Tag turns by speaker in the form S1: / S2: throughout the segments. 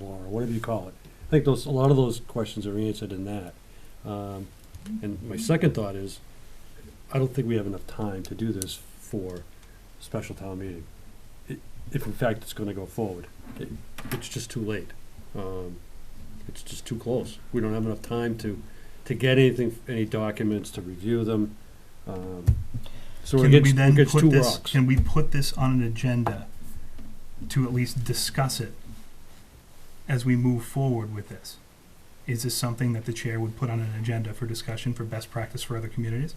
S1: whatever you call it. I think those, a lot of those questions are answered in that. Um, and my second thought is, I don't think we have enough time to do this for special town meeting. i- If in fact it's gonna go forward, It- it's just too late. Um, it's just too close. We don't have enough time to, to get anything, any documents, to review them. Um, So it
S2: Can
S1: gets,
S2: we
S1: it
S2: then
S1: gets
S2: put
S1: two
S2: this,
S1: rocks.
S2: can we put this on an agenda to at least discuss it as we move forward with this? Is this something that the chair would put on an agenda for discussion for best practice for other communities?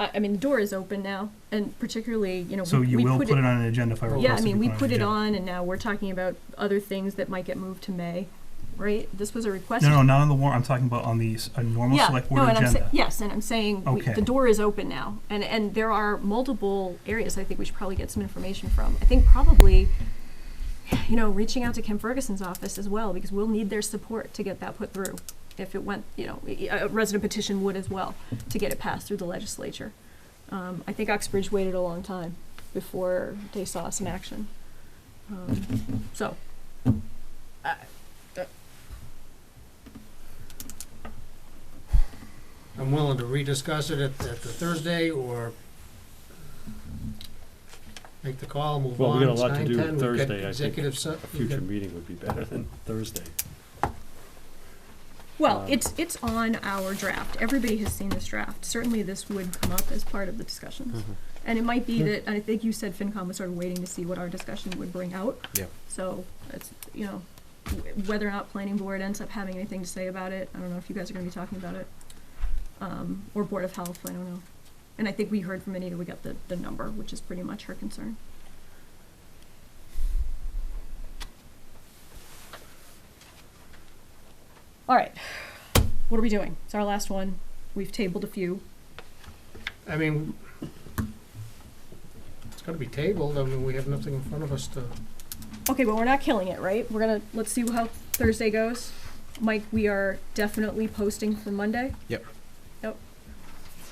S3: I, I mean, the door is open now, and particularly, you know,
S2: So
S3: we,
S2: you
S3: we
S2: will
S3: put
S2: put it on an agenda if I request
S3: yeah,
S2: it
S3: I
S2: be
S3: mean, we
S2: an
S3: put it
S2: agenda.
S3: on, and now we're talking about other things that might get moved to May, right? This was a request.
S2: No, no, not on the warrant, I'm talking about on the, s- a normal
S3: yeah,
S2: select
S3: no,
S2: board
S3: and I'm sa-
S2: agenda.
S3: yes, and I'm saying we,
S2: Okay.
S3: the door is open now, and and there are multiple areas I think we should probably get some information from. I think probably, you know, reaching out to Kim Ferguson's office as well because we'll need their support to get that put through. If it went, you know, i- a resident petition would as well to get it passed through the legislature. Um, I think Oxbridge waited a long time before they saw some action. Um, so. I-
S4: I'm willing to rediscuss it at, at the Thursday or make the call, move
S1: Well,
S4: on.
S1: we got a
S4: It's
S1: lot to do
S4: 9:10. We've got
S1: Thursday, I think.
S4: Executive se-
S1: A
S4: we've
S1: future meeting would be better than Thursday.
S3: Well,
S1: Um,
S3: it's it's on our draft. Everybody has seen this draft. Certainly, this would come up as part of the discussions, and it might be that I think you said FinCom was sort of waiting to see what our discussion would bring out.
S5: Yeah.
S3: So it's you know wh- whether or not planning board ends up having anything to say about it. I don't know if you guys are going to be talking about it, um, or board of health. I don't know. And I think we heard from Anita. We got the the number, which is pretty much her concern. All right. What are we doing? It's our last one. We've tabled a few.
S4: got- I mean, it's gonna be tabled. I mean, we have nothing in front of us to,
S3: Okay, but we're not killing it, right? We're gonna let's see how Thursday goes. Mike, we are definitely posting for Monday.
S5: Yep.
S3: Yep.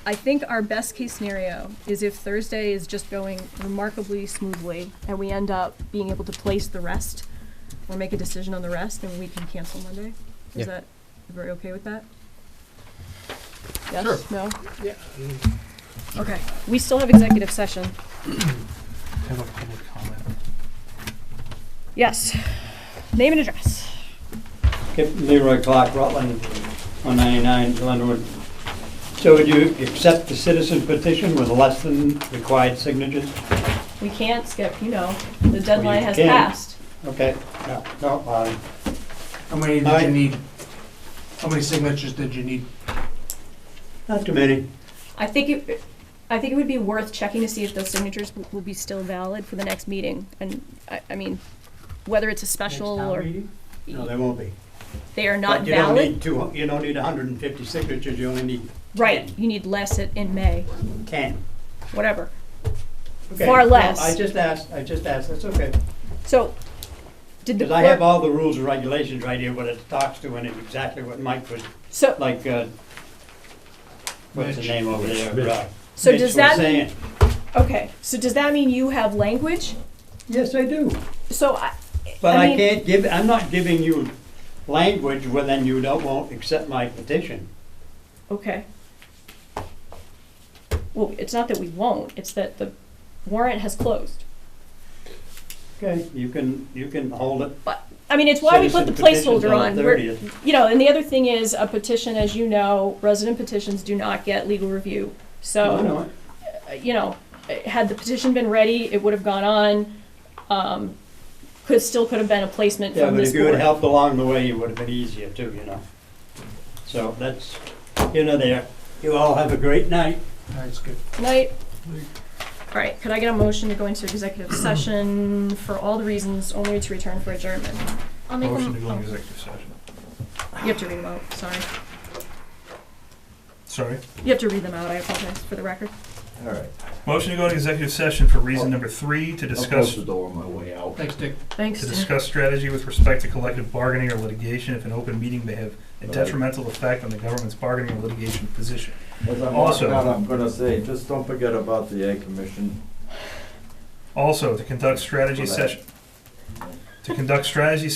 S3: I think our best case scenario is if Thursday is just going remarkably smoothly and we end up being able to place the rest or make a decision on the rest, then we can cancel Monday. Is
S5: Yeah.
S3: that everybody okay with that? Yes?
S4: Sure.
S3: No?
S4: yeah, I mean,
S3: Okay. We still have executive session.
S2: Have a public comment.
S3: Yes. Name and address.
S6: Kip Leroy Clark, Rutland, 199 Glenwood. So would you accept the citizen petition with less than required signatures?
S3: We can't skip, you know, the deadline has
S6: can.
S3: passed.
S6: Okay, no, no, uh,
S7: How many did
S6: I-
S7: you need? How many signatures did you need?
S6: not too many.
S3: I think it, I think it would be worth checking to see if those signatures w- will be still valid for the next meeting. And, I, I mean, whether it's a special or,
S6: No, there won't be.
S3: they are not
S6: But you don't
S3: valid.
S6: need two, you don't need 150 signatures, you only need
S3: Right, you need less at- in May,
S6: 10.
S3: whatever.
S6: Okay,
S3: Far
S6: no,
S3: less.
S6: I just asked, I just asked, that's okay.
S3: So, did the
S6: Because I have
S3: clerk,
S6: all the rules and regulations right here, what it talks to, and it's exactly what Mike was,
S3: so,
S6: like, uh, what's the
S2: Mitch.
S6: name over
S1: Mitch.
S6: there? uh,
S3: so
S6: Mitch
S3: does
S6: was
S3: that mean,
S6: saying.
S3: okay, so does that mean you have language?
S6: Yes, I do.
S3: So I,
S6: But
S3: I
S6: I
S3: mean-
S6: can't give, I'm not giving you language where then you don't, won't accept my petition.
S3: okay. Well, it's not that we won't, it's that the warrant has closed.
S6: Okay. You can, you can hold it.
S3: But, I mean, it's why we put the
S6: Citizen petitions
S3: placeholder on.
S6: the
S3: We're-
S6: 30th.
S3: You know, and the other thing is, a petition, as you know, resident petitions do not get legal review.
S6: No,
S3: So,
S6: no,
S3: uh, you know, uh, had the petition been ready, it would have gone on, um, could, still could have been a placement
S6: Yeah,
S3: from
S6: but
S3: this
S6: if you had
S3: board.
S6: helped along the way, it would have been easier too, you know? So that's, you know, there. You all have a great night.
S7: That's good.
S3: Tonight, all right, could I get a motion to go into executive session for all the reasons, only to return for adjournment? I'll make
S7: Motion to
S3: them,
S7: go into
S3: oh,
S7: executive session.
S3: you have to read them out, sorry.
S2: Sorry.
S3: You have to read them out, I apologize, for the record.
S5: All right.
S2: Motion to go to executive session for reason number three, to
S5: I'll
S2: discuss
S5: close the door on my way out.
S4: thanks, Dick.
S3: Thanks.
S2: to discuss strategy with respect to collective bargaining or litigation if an open meeting may have a detrimental effect on the government's bargaining or litigation position.
S5: As I'm
S2: Also-
S5: walking out, I'm gonna say, just don't forget about the egg commission.
S2: Also, to conduct strategy
S5: For that.
S2: session, to conduct strategy